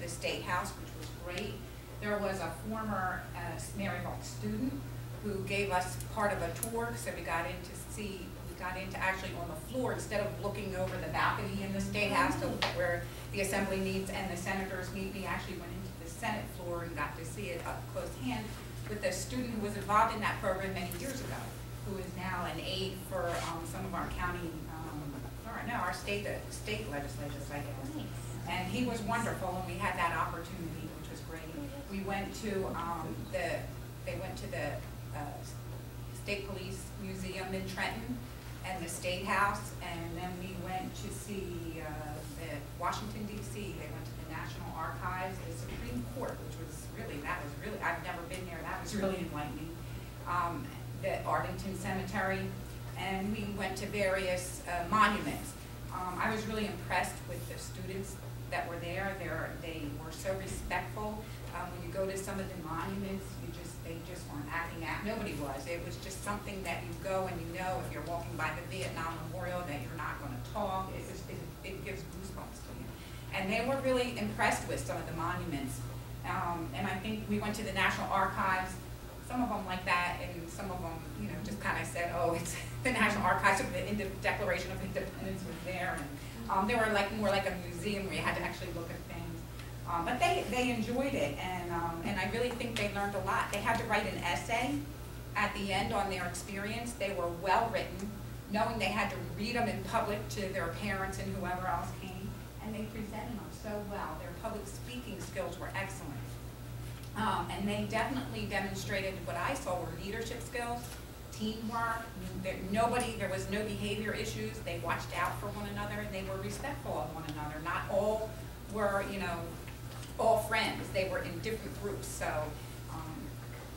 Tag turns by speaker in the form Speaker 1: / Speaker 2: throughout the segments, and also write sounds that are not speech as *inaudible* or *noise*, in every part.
Speaker 1: the State House, which was great. There was a former uh, Maryville student who gave us part of a tour, so we got in to see, we got into actually on the floor, instead of looking over the balcony in the State House to where the Assembly meets and the senators meet, we actually went into the Senate floor and got to see it up close hand with a student who was involved in that program many years ago, who is now an aide for um, some of our county, um, or no, our state, uh, state legislators, I guess. And he was wonderful, and we had that opportunity, which was great. We went to, um, the, they went to the, uh, State Police Museum in Trenton and the State House, and then we went to see, uh, the Washington DC. They went to the National Archives, the Supreme Court, which was really, that was really, I've never been there, that was really enlightening. Um, the Arlington Cemetery, and we went to various uh, monuments. Um, I was really impressed with the students that were there. Ththey're, they were so respectful. Um, when you go to some of the monuments, you just, they just weren't acting out. Nobody was. It was just something that you go and you know if you're walking by the Vietnam Memorial that you're not gonna talk. It was, it, it gives goosebumps to you. And they were really impressed with some of the monuments. Um, and I think we went to the National Archives, some of them like that, and some of them, you know, just kind of said, oh, it's *laughs* the National Archives of the Inde- Declaration of Independence was there, and, um, they were like, more like a museum where you had to actually look at things. Um, but they, they enjoyed it, and, um, and I really think they learned a lot. They had to write an essay at the end on their experience. They were well-written, knowing they had to read them in public to their parents and whoever else came, and they presented them so well. Their public speaking skills were excellent. Um, and they definitely demonstrated what I saw were leadership skills, teamwork, there, nobody, there was no behavior issues, they watched out for one another, and they were respectful of one another, not all were, you know, all friends, they were in different groups, so, um,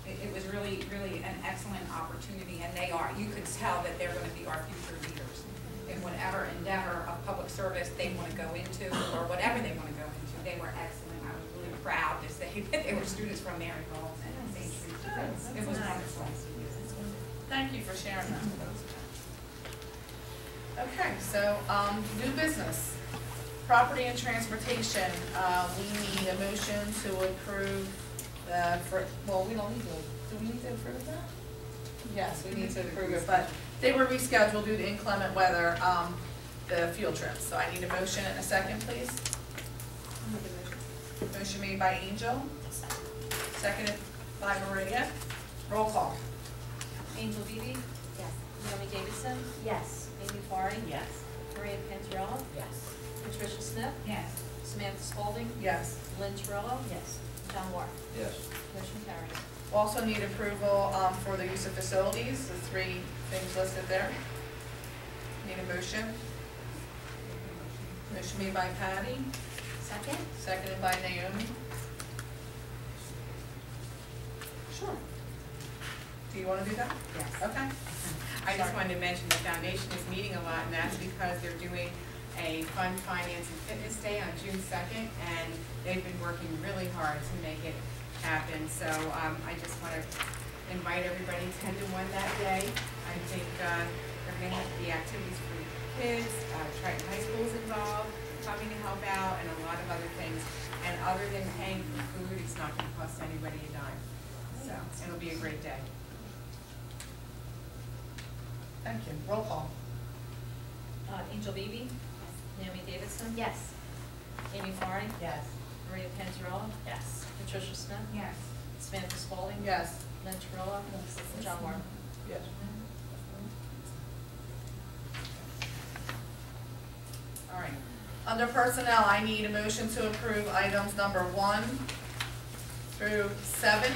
Speaker 1: it, it was really, really an excellent opportunity, and they are, you could tell that they're gonna be our future leaders in whatever endeavor of public service they wanna go into, or whatever they wanna go into, they were excellent, I was really proud to say *laughs* that they were students from Maryville and St. Teresa. It was wonderful.
Speaker 2: Thank you for sharing that. Okay, so, um, new business, property and transportation, uh, we need a motion to approve the, for, well, we don't need to, do we need to approve that? Yes, we need to approve it, but they were rescheduled due to inclement weather, um, the field trips, so I need a motion and a second, please. Motion made by Angel, seconded by Maria, roll call.
Speaker 3: Angel Beebe? Yes. Naomi Davidson? Yes. Amy Farah?
Speaker 4: Yes.
Speaker 3: Maria Panzarella?
Speaker 4: Yes.
Speaker 3: Patricia Smith?
Speaker 1: Yes.
Speaker 3: Samantha Spalding?
Speaker 2: Yes.
Speaker 3: Lynn Terrell? Yes. John Ward?
Speaker 5: Yes,
Speaker 3: Motion carries.
Speaker 2: Also need approval um, for the use of facilities, the three things listed there. Need a motion? Motion made by Patty,
Speaker 3: Second?
Speaker 2: seconded by Naomi. Sure. Do you want to do that?
Speaker 1: Yes.
Speaker 2: Okay.
Speaker 6: I just wanted to mention the foundation is meeting a lot, and that's because they're doing a fun finance and fitness day on June second, and they've been working really hard to make it happen, so, um, I just want to invite everybody to attend to one that day. I think, uh, they're gonna have the activities for the kids, uh, Triton High School's involved, coming to help out, and a lot of other things. And other than paying for food, it's not gonna cost anybody a dime, so, it'll be a great day.
Speaker 2: Thank you. Roll call.
Speaker 3: Uh, Angel Beebe? Naomi Davidson?
Speaker 4: Yes.
Speaker 3: Amy Farah?
Speaker 4: Yes.
Speaker 3: Maria Panzarella?
Speaker 4: Yes.
Speaker 3: Patricia Smith?
Speaker 1: Yes.
Speaker 3: Samantha Spalding?
Speaker 2: Yes.
Speaker 3: Lynn Terrell? John Ward?
Speaker 5: yes.
Speaker 2: All right. Under personnel, I need a motion to approve items number one through seven.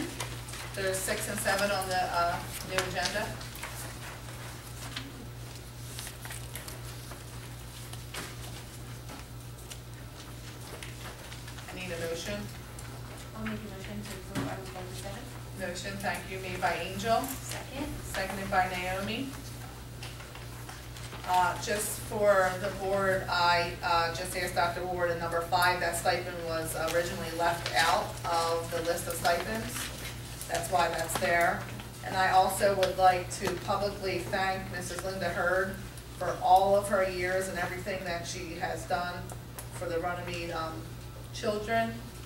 Speaker 2: There's six and seven on the, uh, new agenda. I need a motion.
Speaker 3: I'll make a motion to approve item number seven.
Speaker 2: Motion, thank you, made by Angel,
Speaker 3: Second?
Speaker 2: seconded by Naomi. Uh, just for the board, I, uh, just asked Dr. Ward in number five, that stipend was originally left out of the list of stipends. That's why that's there. And I also would like to publicly thank Mrs. Linda Hurd for all of her years and everything that she has done for the Runnymede, um, children.